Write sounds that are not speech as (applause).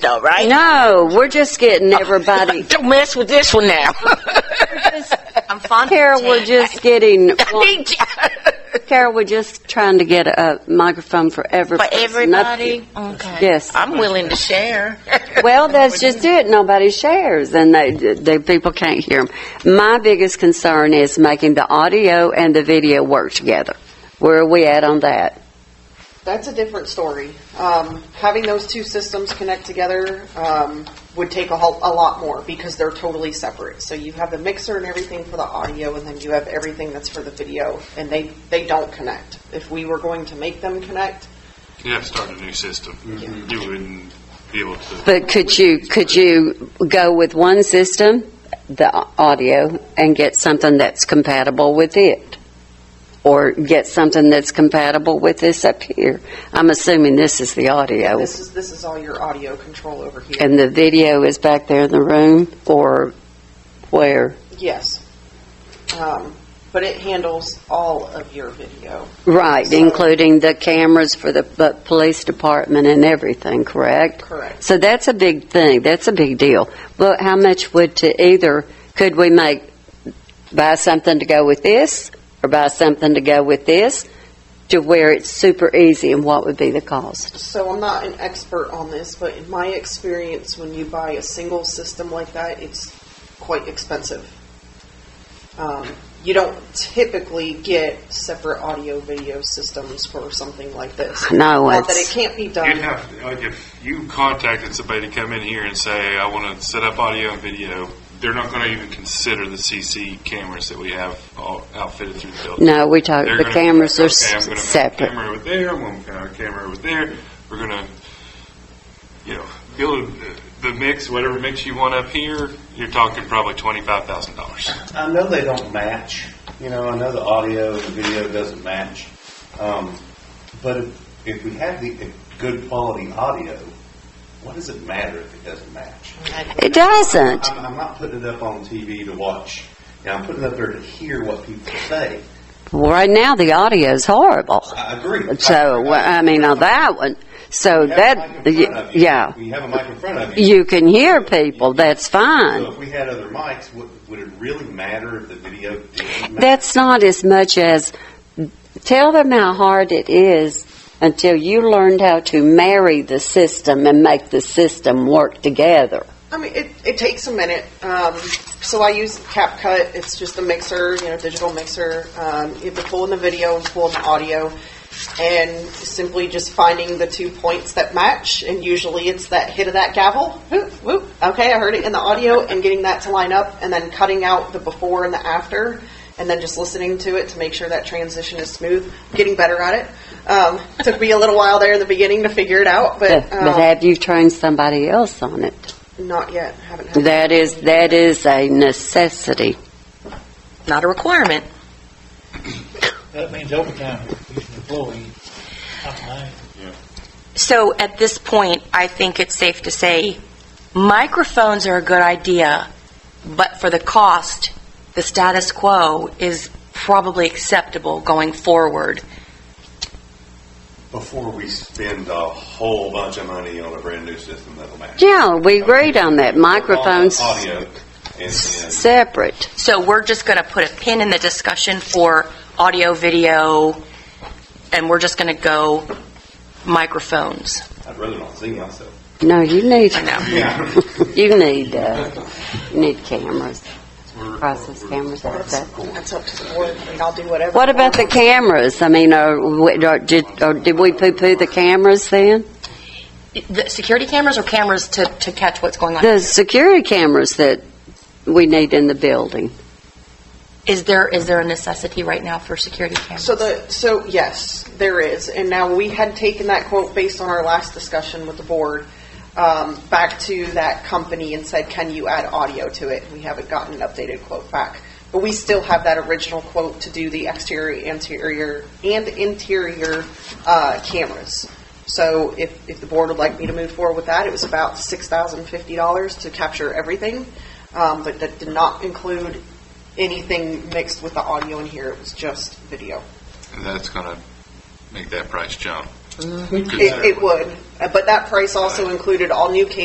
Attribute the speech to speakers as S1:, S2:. S1: though, right?
S2: No, we're just getting everybody.
S1: Don't mess with this one now.
S3: I'm fond of
S2: Carol, we're just getting.
S1: For
S2: Carol, we're just trying to get a microphone for everybody.
S1: everybody? Okay.
S2: Yes.
S1: I'm willing to share.
S2: Well, that's just it. Nobody shares, and they, the people can't hear them. My biggest concern is making the audio and the video work together. Where are we at on that?
S4: That's a different story. Um, having those two systems connect together um, would take a, whole, a lot more because they're totally separate. So you have the mixer and everything for the audio, and then you have everything that's for the video, and they, they don't connect. If we were going to make them connect,
S5: You have to start a new system. You wouldn't be able to.
S2: Mm-hmm. But could you, could you go with one system, the audio, and get something that's compatible with it? Or get something that's compatible with this up here? I'm assuming this is the audio,
S4: this is this is all your audio control over here.
S2: Oh. and the video is back there in the room, or where?
S4: yes, um, but it handles all of your video.
S2: Right,
S4: So-
S2: including the cameras for the bu- police department and everything, correct?
S4: Correct.
S2: So that's a big thing, that's a big deal. But how much would to either, could we make, buy something to go with this, or buy something to go with this, to where it's super easy, and what would be the cost?
S4: So I'm not an expert on this, but in my experience, when you buy a single system like that, it's quite expensive. Um, you don't typically get separate audio video systems for something like this.
S2: No,
S4: Not that
S2: it's-
S4: it can't
S2: uh,
S4: be
S5: You'd
S4: done.
S5: have, like, if you contacted somebody to come in here and say, I want to set up audio and video, they're not going to even consider the CC cameras that we have all outfitted through the building.
S2: No, we talk,
S5: They're
S2: the
S5: gonna-
S2: cameras are
S5: okay, I'm gonna
S2: s-
S5: move a
S2: separate.
S5: Camera over there, one uh, camera over there. We're gonna, you know, build the mix, whatever mix you want up here. You're talking probably twenty-five thousand dollars.
S6: I know they don't match. You know, I know the audio and the video doesn't match. Um, but if, if we have the if good quality audio, what does it matter if it doesn't match?
S2: It doesn't.
S6: I'm, I'm not putting it up on TV to watch. You know, I'm putting it up there to hear what people say.
S2: Right now, the audio's horrible.
S6: I agree.
S2: So, well, I mean, on that one, so
S6: We have a
S2: that,
S6: mic in front of you.
S2: yeah.
S6: We have a mic in front of you.
S2: You can hear people, that's
S6: So
S2: fine.
S6: if we had other mics, would, would it really matter if the video didn't match?
S2: That's not as much as tell them how hard it is until you learned how to marry the system and make the system work together.
S4: I mean, it, it takes a minute. Um, so I use CapCut. It's just a mixer, you know, digital mixer. Um, you have to pull in the video and pull in the audio, and simply just finding the two points that match. And usually it's that hit of that gavel. Whoop, whoop. Okay, I heard it in the audio, and getting that to line up, and then cutting out the before and the after, and then just listening to it to make sure that transition is smooth. Getting better at it. Um, took me a little while there in the beginning to figure it out, but,
S2: But
S4: um,
S2: but have you trained somebody else on it?
S4: not yet. Haven't had
S2: That is, that is a necessity.
S1: Not a requirement.
S7: That means overtime, he's an employee, not mine.
S3: So at this point, I think it's safe to say microphones are a good idea, but for the cost, the status quo is probably acceptable going forward.
S6: Before we spend a whole bunch of money on a brand new system that'll match.
S2: Yeah, we agreed on that. Microphones
S6: Audio and- and
S2: separate.
S3: So we're just going to put a pin in the discussion for audio, video, and we're just going to go microphones.
S6: I'd rather not see myself.
S2: (laughs) No, you need,
S3: I know.
S6: Yeah. (laughs)
S2: you need, uh, you need cameras, process cameras like that.
S4: That's up to the board, I mean, I'll do whatever.
S2: What about the cameras? I mean, are, we- are, did, or did we poo-poo the cameras then?
S3: The security cameras or cameras to, to catch what's going on?
S2: The security cameras that we need in the building.
S3: Is there, is there a necessity right now for security cameras?
S4: So the, so yes, there is. And now we had taken that quote based on our last discussion with the board, um, back to that company and said, can you add audio to it? We haven't gotten an updated quote back. But we still have that original quote to do the exterior, interior, and interior, uh, cameras. So if, if the board would like me to move forward with that, it was about six thousand fifty dollars to capture everything. Um, but that did not include anything mixed with the audio in here. It was just video.
S5: And that's gonna make that price jump.
S4: It, it would, Uh, but that price also included all new cable